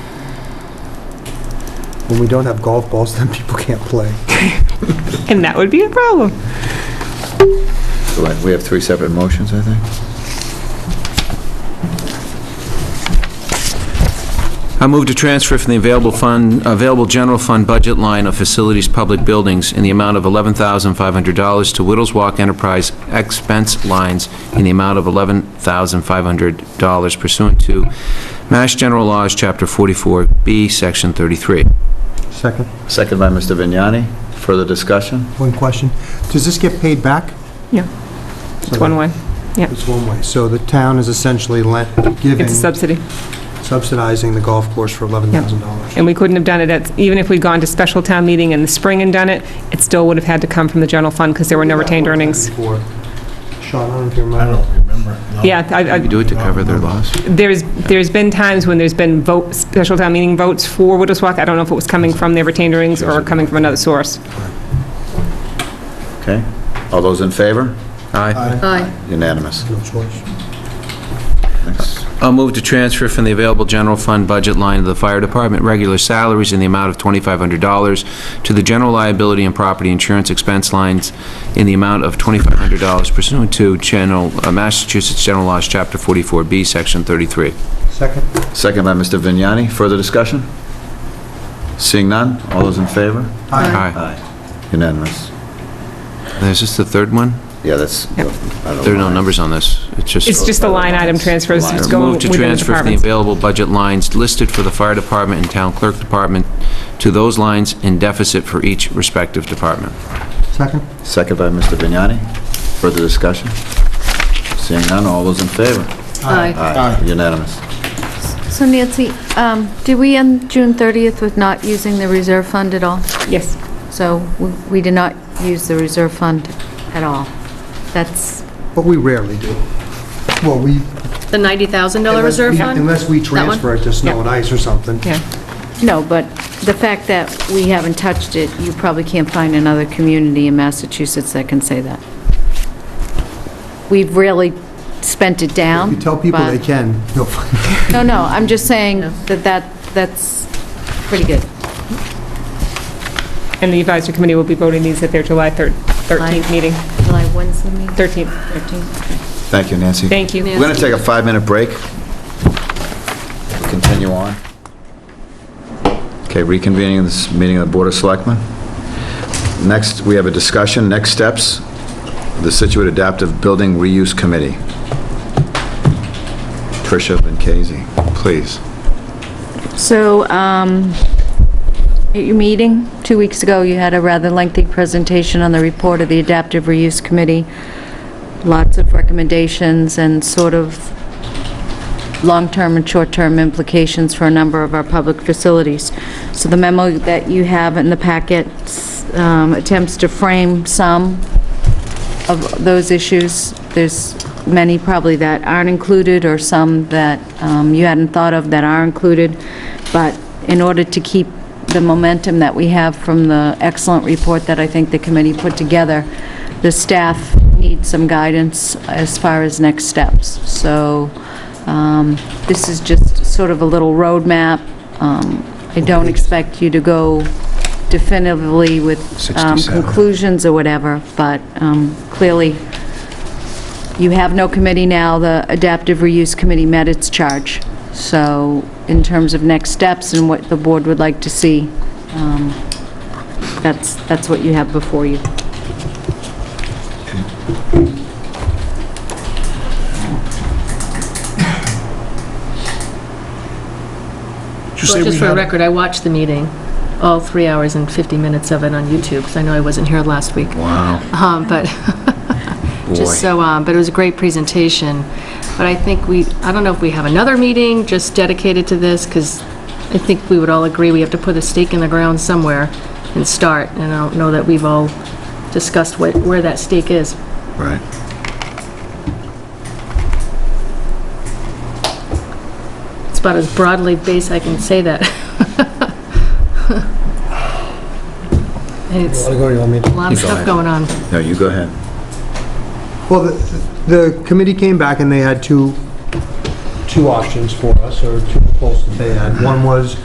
when we don't have golf balls, then people can't play. And that would be a problem. So like, we have three separate motions, I think. I move to transfer from the available fund, available general fund budget line of facilities, public buildings in the amount of $11,500 to Whittles Walk Enterprise expense lines in the amount of $11,500 pursuant to Mass General Laws, Chapter 44B, Section 33. Second, Second by Mr. Vignani. Further discussion? one question. Does this get paid back? Yeah, it's one way. Yeah, It's one way. So the town is essentially lent, giving, it's a subsidy. subsidizing the golf course for $11,000. And we couldn't have done it at, even if we'd gone to special town meeting in the spring and done it, it still would have had to come from the general fund because there were no retained earnings. Before. Sean, I don't know if you remember. I don't remember. no. Yeah, I, I, Do it to cover their loss. there's, there's been times when there's been vote, special town meeting votes for Widows Walk. I don't know if it was coming from their retained earnings or coming from another source. Okay? All those in favor? Aye. Aye. Unanimous. No choice. Next. I'll move to transfer from the available general fund budget line of the fire department regular salaries in the amount of $2,500 to the general liability and property insurance expense lines in the amount of $2,500 pursuant to general, uh, Massachusetts General Laws, Chapter 44B, Section 33. Second, Second by Mr. Vignani. Further discussion? Seeing none? All those in favor? Aye. Uh, Aye. Unanimous. Is this the third one? Yeah, that's, I Yep. don't know. There are no numbers on this. It's just... It's just the line item transfers Line that's item. going Move to within the transfer from the departments. available budget lines listed for the fire department and town clerk department to those lines in deficit for each respective department. second? Second by Mr. Vignani. Further discussion? Seeing none, all those in favor? Aye. Aye. Unanimous. So Nancy, um, did we end June 30th with not using the reserve fund at all? Yes. So we- we did not use the reserve fund at all. That's, But we rarely do. Well, we... The $90,000 unless reserve we- fund? Unless we That one? transfer it to snow and ice or something. Yeah. no, but the fact that we haven't touched it, you probably can't find another community in Massachusetts that can say that. We've really spent it down. You tell people but- they can, you'll find No, no, I'm just saying that that, that's pretty good. And the advisory committee will be voting these at their July thir- 13th Aye. meeting, July, when's the meeting? 13th. 13th. Thank you, Nancy. Thank you. We're going to take a five-minute break. Continue on. Okay, reconvening this meeting of the Board of Selectmen. Next, we have a discussion, next steps, the Situate Adaptive Building Reuse Committee. Tricia Benkasey, please. So, um, at your meeting, two weeks ago, you had a rather lengthy presentation on the report of the Adaptive Reuse Committee. Lots of recommendations and sort of long-term and short-term implications for a number of our public facilities. So the memo that you have in the packet um, attempts to frame some of those issues. There's many probably that aren't included, or some that um, you hadn't thought of that are included, but in order to keep the momentum that we have from the excellent report that I think the committee put together, the staff needs some guidance as far as next steps. So um, this is just sort of a little roadmap. Um, I don't expect you to go definitively with um, 67. conclusions or whatever, but um, clearly, you have no committee now, the Adaptive Reuse Committee met its charge. So in terms of next steps and what the board would like to see, um, that's, that's what you have before you. Did you say Well, we Just for the had- record, I watched the meeting, all three hours and 50 minutes of it on YouTube, because I know I wasn't here last week. Wow. Um, But, Boy. just so, um, but it was a great presentation. But I think we, I don't know if we have another meeting just dedicated to this, because I think we would all agree we have to put a stake in the ground somewhere and start, and I don't know that we've all discussed what- where that stake is. Right. It's about as broadly based I can say that. And it's a go, you want me to- lot of stuff going on. No, you go ahead. Well, the- the committee came back and they had two, two options for us, or two proposals they had. One was